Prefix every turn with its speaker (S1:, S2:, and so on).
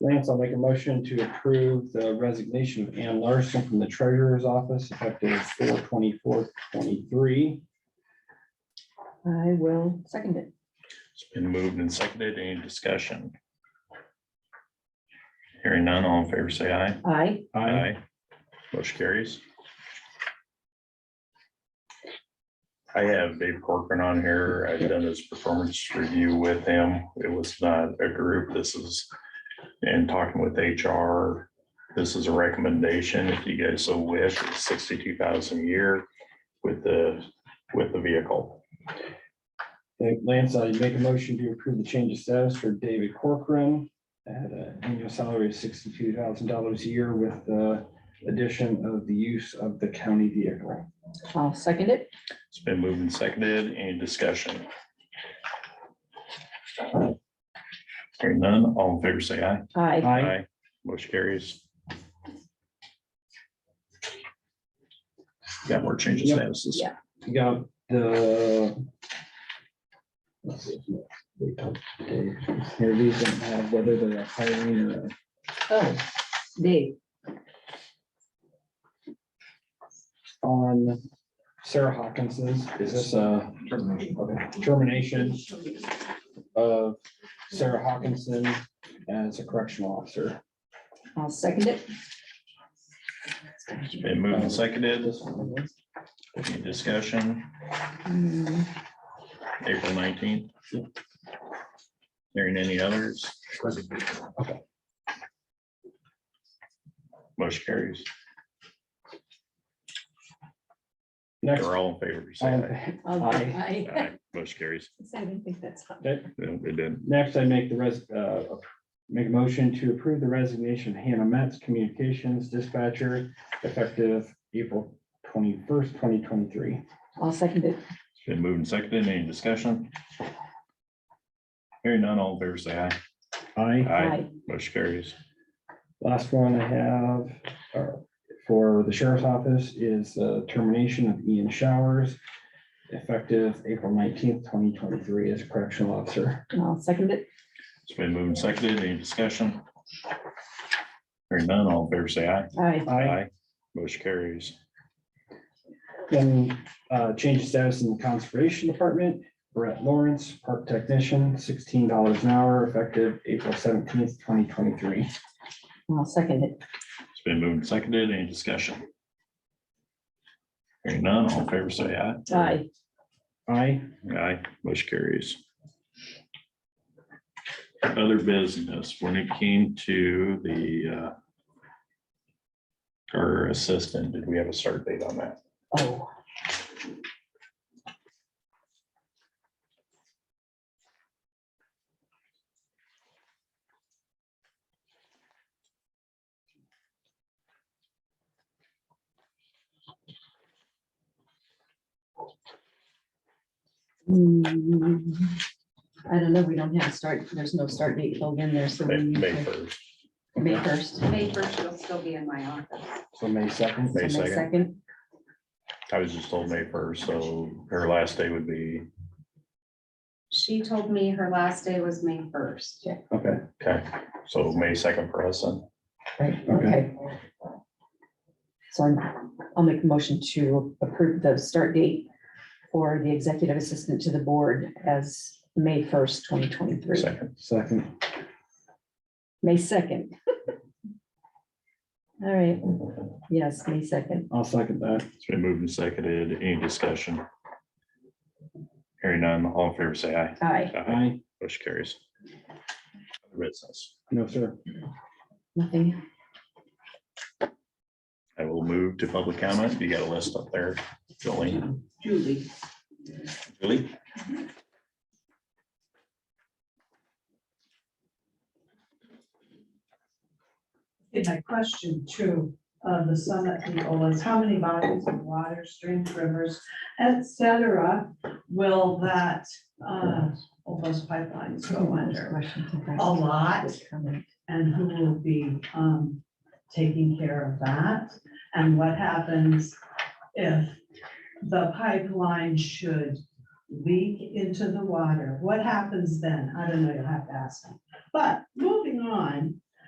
S1: Lance, I'll make a motion to approve the resignation of Ann Larson from the treasurer's office effective four twenty-four twenty-three.
S2: I will second it.
S3: It's been moved and seconded. Any discussion? Hearing none, all in favor, say aye.
S2: I,
S3: Motion carries. I have Dave Corcoran on here. I've done his performance review with him. It was not a group. This is, and talking with HR, this is a recommendation, if you guys so wish, sixty-two thousand a year with the, with the vehicle.
S1: Okay, Lance, I make a motion to approve the change of status for David Corcoran at an annual salary of sixty-two thousand dollars a year with the addition of the use of the county vehicle.
S2: I'll second it.
S3: It's been moved and seconded. Any discussion? Hearing none, all in favor, say aye.
S2: I,
S1: Aye.
S3: Motion carries. Got more changes
S1: Yep.
S3: statuses.
S2: Yeah.
S1: You got the. let's see, we talked to Dave. Here, these don't have whether they're hiring or.
S2: oh, Dave,
S1: on Sarah Hawkinson's, is this a okay, termination of Sarah Hawkinson as a correctional officer?
S2: I'll second it.
S3: Been moved and seconded.
S1: This one was-
S3: Any discussion?
S2: Hmm,
S3: April nineteenth. Hearing any others?
S1: Okay.
S3: Motion carries.
S1: Next,
S3: They're all in favor. say aye.
S1: um,
S2: I'll-
S1: Aye.
S2: I
S3: Aye. Motion carries.
S2: I didn't think that's.
S1: that-
S3: No, It didn't.
S1: next I make the res, uh, make a motion to approve the resignation of Hannah Metz, communications dispatcher, effective April twenty-first, twenty twenty-three.
S2: I'll second it.
S3: It's Been moved and seconded. Any discussion? Hearing none, all in favor, say aye.
S1: Aye.
S2: I,
S3: Motion carries.
S1: Last one I have uh, for the sheriff's office is uh, termination of Ian Showers effective April nineteenth, twenty twenty-three as correctional officer.
S2: I'll second it.
S3: It's been moved and seconded. Any discussion? Hearing none, all in favor, say aye.
S2: I,
S3: Motion carries.
S1: Then uh, change of status in the conservation department, Brett Lawrence, park technician, sixteen dollars an hour effective April seventeenth, twenty twenty-three.
S2: I'll second it.
S3: It's been moved and seconded. Any discussion? Hearing none, all in favor, say aye.
S2: I,
S1: Aye.
S3: Aye. Motion carries. Other business, when it came to the uh, our assistant, did we have a start date on that?
S2: oh, Hmm, I don't know. We don't have a start. There's no start date filled in there, so we
S3: May
S2: need
S3: May
S2: to
S3: first,
S2: May first.
S4: May first, she'll still be in my office.
S1: So May second.
S3: May
S2: So May
S3: second.
S2: second.
S3: I was just told May first, so her last day would be,
S4: She told me her last day was May first.
S1: Okay,
S3: okay, so May second for us then.
S2: Right,
S1: Okay.
S2: okay. So I'm, I'll make a motion to approve the start date for the executive assistant to the board as May first, twenty twenty-three,
S3: Second,
S1: second.
S2: May second. All right, yes, May second.
S1: I'll second that.
S3: it's been moved and seconded. Any discussion? Hearing none, all in favor, say aye.
S2: Aye,
S1: Aye.
S3: Motion carries. Other Business.
S1: No, sir.
S2: nothing.
S3: I will move to public comment. You got a list up there, Jolene.
S4: Julie.
S3: Julie?
S5: Okay, my question two of the summit people is how many bodies of water, streams, rivers, et cetera, will that, uh, all those pipelines go under? A lot, and who will be, um, taking care of that? And what happens if the pipeline should leak into the water? What happens then? I don't know, you'll have to ask me. But moving on,